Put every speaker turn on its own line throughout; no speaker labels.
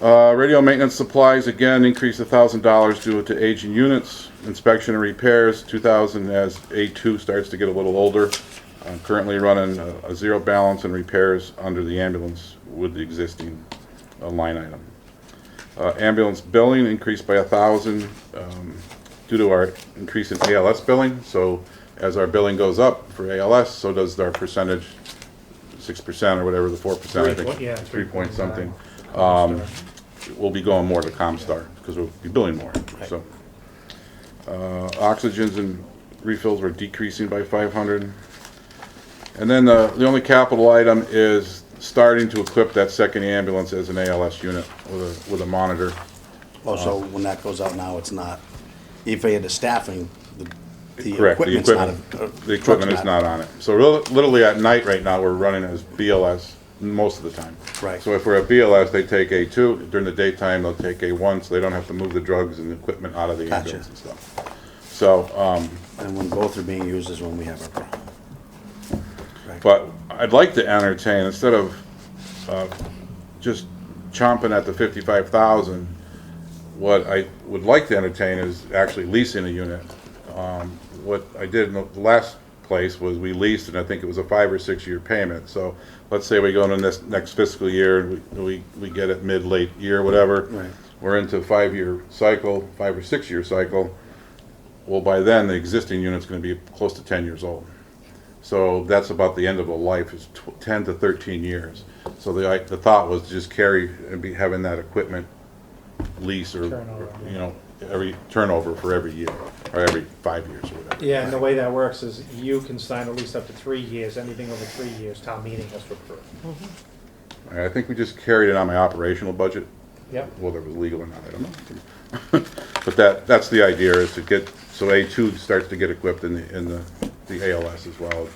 Uh, radio maintenance supplies, again, increased a thousand dollars due to aging units. Inspection and repairs, two thousand as A two starts to get a little older. I'm currently running a, a zero balance in repairs under the ambulance with the existing uh, line item. Uh, ambulance billing increased by a thousand, um, due to our increase in ALS billing. So as our billing goes up for ALS, so does our percentage, six percent or whatever, the four percent, I
Three
think.
point- yeah,
Three point
3.9.
something Um, we'll be going more to ComStar, because we'll be billing more, so. Uh, Oxygens and refills were decreasing by five hundred. And then the, the only capital item is starting to equip that second ambulance as an ALS unit with a, with a monitor.
Oh, so when that goes out now, it's not, if they had the staffing, the, the
Correct, the
equipment's not.
equipment,
a- uh,
the equipment
truck's
is not on it. So real- literally at night right now, we're running as BLS most of the time.
Right.
So if we're at BLS, they take A2, during the daytime, they'll take A1, so they don't have to move the drugs and the equipment out of the
Gotcha.
ambulance and stuff. So, um,
And when both are being used is when we have our problem.
but I'd like to entertain, instead of, uh, just chomping at the fifty-five thousand, what I would like to entertain is actually leasing a unit. Um, what I did in the last place was we leased, and I think it was a five or six-year payment. So let's say we go into this next fiscal year, and we, we, we get it mid, late year, whatever.
Right.
We're into a five-year cycle, five or six-year cycle. Well, by then, the existing unit's gonna be close to ten years old. So that's about the end of a life, is tw- ten to thirteen years. So the, I, the thought was to just carry and be having that equipment lease or,
Turnover.
you know, every turnover for every year, or every five years or whatever.
Yeah, and the way that works is you can sign a lease up to three years, anything over three years, town meeting has to approve.
All right, I think we just carried it on my operational budget,
Yep,
whether it was legal or not, I don't know. But that, that's the idea, is to get, so A two starts to get equipped in the, in the, the ALS as well,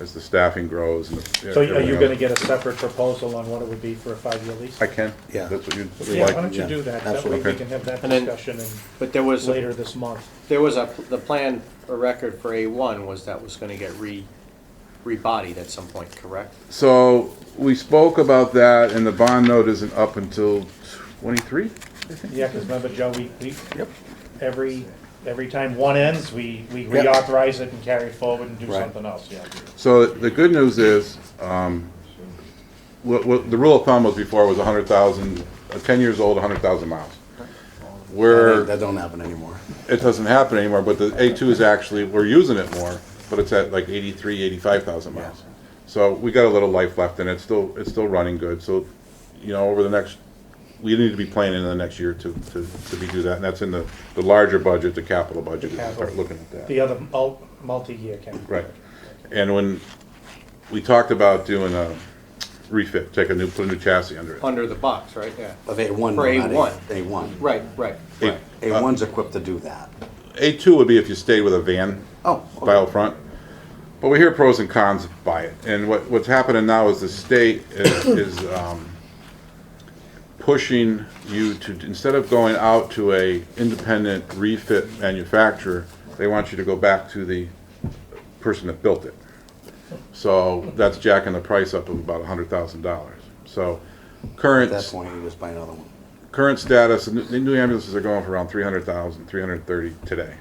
as the staffing grows and. the-
so are you
everything
gonna
else.
get a separate proposal on what it would be for a five-year lease?
I can.
Yeah.
That's what you, you
Yeah, why
like.
don't you
Yeah,
do that, that way we
absolutely.
can have that
And then-
discussion and
But there was,
later this month.
there was a, the plan, a record for A1 was that was gonna get re, rebodied at some point, correct?
So, we spoke about that, and the bond note isn't up until twenty-three?
Yeah, because remember, Joe, we, we,
Yep.
every, every time one ends, we, we
Yep.
reauthorize it and carry it forward and do
Right.
something else, yeah.
So the good news is, um, what, what the rule of thumb was before was a hundred thousand, uh, ten years old, a hundred thousand miles. Where
That don't happen anymore.
it doesn't happen anymore, but the A two is actually, we're using it more, but it's at like 83, 85,000 miles. So we got a little life left and it's still, it's still running good, so, you know, over the next, we need to be planning in the next year to, to, to be do that, and that's in the, the larger budget, the capital budget,
The
is to start
capital.
looking at that.
The other mul- multi-year can.
Right. And when we talked about doing a refit, take a new, put a new chassis under it.
Under the box, right, yeah.
But A one.
For A1.
A one.
Right, right,
A-
right.
A one's equipped to do that.
A two would be if you stayed with a van
Oh, okay.
by out front. But we hear pros and cons by it. And what, what's happening now is the state is, is, um, pushing you to, instead of going out to a independent refit manufacturer, they want you to go back to the person that built it. So that's jacking the price up of about a hundred thousand dollars. So
At
current
that point, you just buy another one.
current status, the new- the new ambulances are going for around 300,000, 330 today.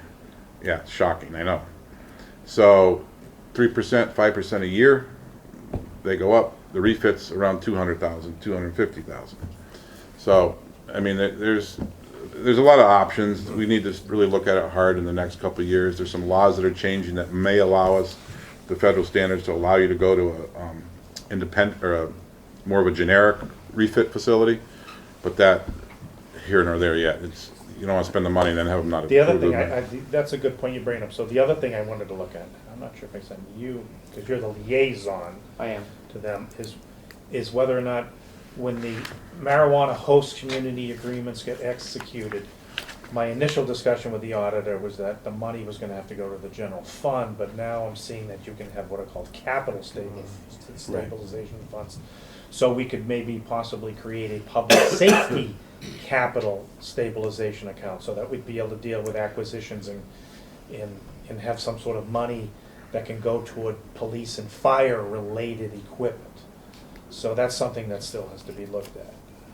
Yeah, it's shocking, I know. So 3%, 5% a year, they go up. The refits around 200,000, 250,000. So, I mean, there- there's, there's a lot of options. We need to really look at it hard in the next couple of years. There's some laws that are changing that may allow us, the federal standards to allow you to go to a, um, independent, or a, more of a generic refit facility. But that, here nor there yet, it's, you don't wanna spend the money and then have them not.
The other
approve
thing, I, I,
it.
that's a good point you bring up, so the other thing I wanted to look at, I'm not sure if I sent you, because you're the liaison
I am.
to them, is, is whether or not when the marijuana host community agreements get executed, my initial discussion with the auditor was that the money was gonna have to go to the general fund, but now I'm seeing that you can have what are called capital stable, stabilization funds. So we could maybe possibly create a public safety capital stabilization account, so that we'd be able to deal with acquisitions and, and, and have some sort of money that can go toward police and fire-related equipment. So that's something that still has to be looked at.